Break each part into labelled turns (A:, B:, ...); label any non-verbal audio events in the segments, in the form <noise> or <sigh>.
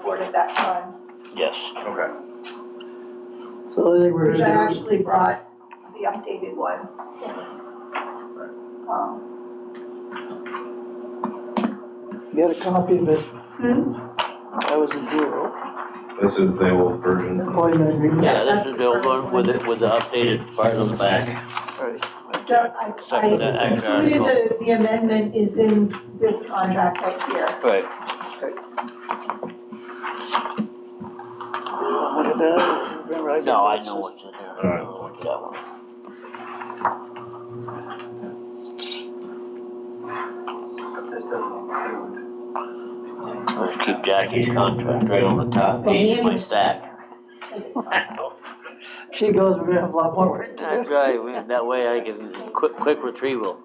A: started that fund,
B: Yes.
C: Okay.
D: So I think we're
A: which I
D: gonna do,
A: actually brought the updated one. Um,
D: you got a copy of it,
A: hmm,
D: that was a zero,
C: This is the old version.
D: employment agreement.
B: Yeah, this
A: that's
B: is
A: the
B: the old
A: first
B: one with it, with the updated part on the back.
D: Alright,
A: don't- I, I
B: Second, that actual
A: included the, the amendment is in this contract right here.
B: Right.
D: look at that, remember I did
B: No, I
D: this.
B: know what's in there.
C: Alright.
B: That one.
E: But this doesn't include.
B: Let's keep Jackie's contract right on the top page, my stack. <laughs>
D: She goes, we're gonna have a lot more work to do.
B: That's right, we- that way I can, quick, quick retrieval.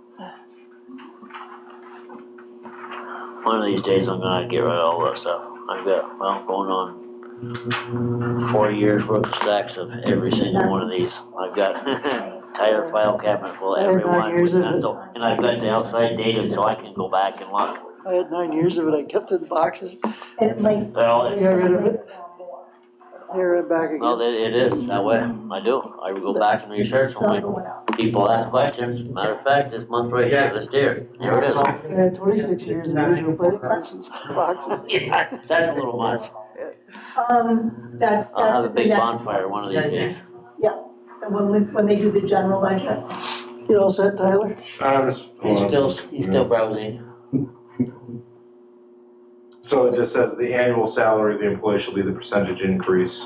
B: One of these days I'm gonna get rid of all that stuff. I've got, well, going on four years worth of stacks of every single one of these. I've got <laughs> entire file cabinet full of
D: I had
B: every
D: nine
B: one
D: years
B: with
D: of it.
B: pencil. And I've got the outside data so I can go back and look.
D: I had nine years of it, I kept it in boxes,
A: And it might
B: Well,
D: I
B: it's
D: got rid of it, here and back
B: Well,
D: again.
B: it, it is, that way, I do, I go back and research
A: So
B: when
A: going out.
B: my people ask questions, matter of fact, this month right here, this deer, there it is.
D: I had twenty-six years of visual plate
B: <laughs>
D: versus boxes.
B: Yeah, That's a little much,
A: Um, that's, that's
B: I'll have a
A: the
B: Uh, big
A: next,
B: bonfire one of these days.
A: the one when, when they do the general budget.
D: You all set, Tyler?
C: Um, just-
B: He's
C: hold
B: still,
C: on.
B: he's still browsing,
C: So it just says the annual salary of the employee shall be the percentage increase.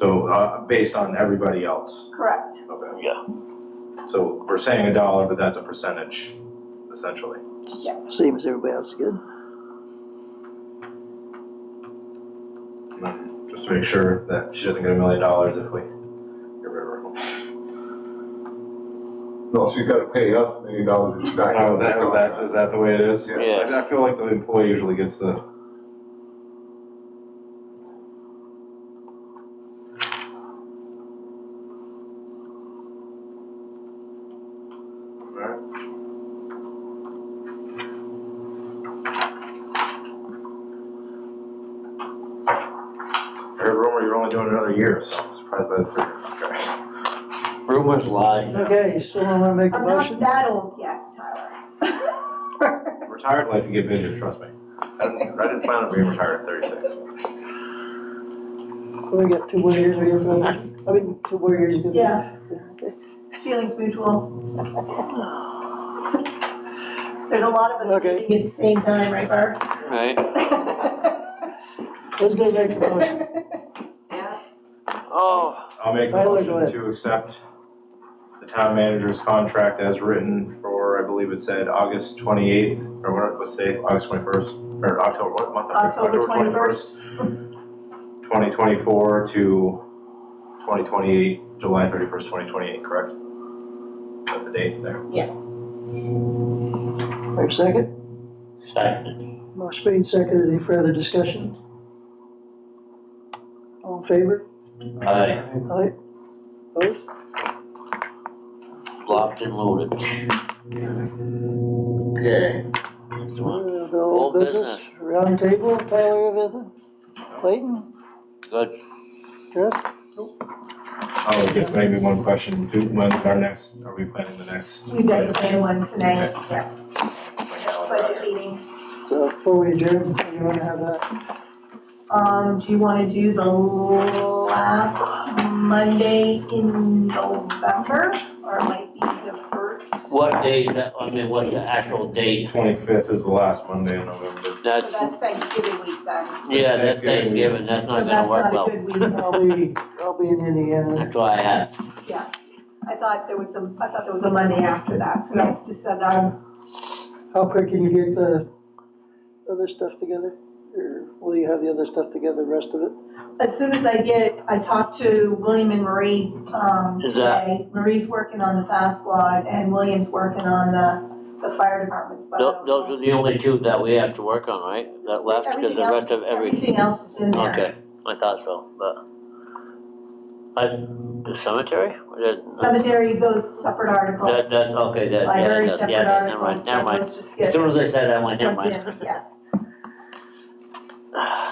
C: So, uh, based on everybody else.
A: Correct.
C: Okay.
B: Yeah.
C: So we're saying a dollar, but that's a percentage, essentially.
D: Same as everybody else, good.
C: Just to make sure that she doesn't get a million dollars if we get rid of her.
F: No, she's gotta pay us a million dollars in back.
C: Oh, is that, is that, is that the way it is?
F: Yeah.
B: yeah,
C: I I feel like the employee usually gets the. I heard rumor you're only doing another year, so I'm surprised by the figure.
B: rumors lie.
D: Okay, you still wanna make a
A: I'm not
D: motion?
A: that old yet, Tyler.
C: <laughs> Retired life, you get busier, trust me. I didn't, I didn't plan on being retired at thirty-six.
D: We got two more years, we have, uh, I mean, two more years. good.
A: Yeah.
D: Okay.
A: Feelings mutual. There's a lot of us
D: Okay.
A: meeting at the same time, right, Barb?
B: Right.
D: Who's gonna make the motion? <laughs>
B: Oh,
C: I'll make a
D: Tyler, go
C: motion
D: ahead.
C: to accept the town manager's contract as written for, I believe it said, August twenty-eighth, or what, what's today, August twenty-first, or October, what month?
A: October 21st.
C: Twenty twenty-four to twenty twenty-eight, July thirty-first, twenty twenty-eight, correct? That's the date there.
D: Our second,
B: second,
D: motion made second, any further discussion? All in favor?
B: I
D: Aye. Opposed? Uh,
B: blocked and loaded. Okay. Next one.
D: Uh, The old
B: Old
D: business, round table, Tyler, Evan, Clayton,
B: Good,
D: Chris,
C: Oh, just maybe one question, do, when, our next, are we planning the next?
A: We've got the plan one tonight, yeah. Next budget meeting.
D: so before we adjourn, you wanna have that?
A: Um, do you wanna do the last Monday in November, or it might be the first?
B: what day is that, I mean, what's the actual date?
C: Twenty-fifth is the last Monday in November.
A: So
B: That's,
A: that's Thanksgiving week then.
B: yeah, that's
C: Thanksgiving.
B: Thanksgiving, that's
A: So
B: not gonna work well.
A: That's not a good week,
D: I'll be, I'll be in Indiana,
B: That's why I asked.
A: I thought there was some, I thought there was a Monday after that, so that's just, um,
D: how quick can you get the other stuff together? Or will you have the other stuff together, the rest of it?
A: as soon as I get, I talked to William and Marie, um,
B: Is that-
A: today. Marie's working on the fast squad and William's working on the, the fire department's. but I
B: Tho-
A: don't
B: Those
A: know.
B: are the only two that we have to work on, right? That left,
A: Everything
B: because the
A: else,
B: rest of every,
A: everything else is in there.
B: okay, I thought so, but. I, the cemetery? Or that-
A: Cemetery goes separate article.
B: That, that, okay, that, yeah,
A: Library
B: that-
A: separate
B: yeah,
A: article.
B: never mind, never mind.
A: Just
B: As
A: get <laughs>
B: soon as I said that, I went, never
A: lumped
B: mind.
A: in, yeah.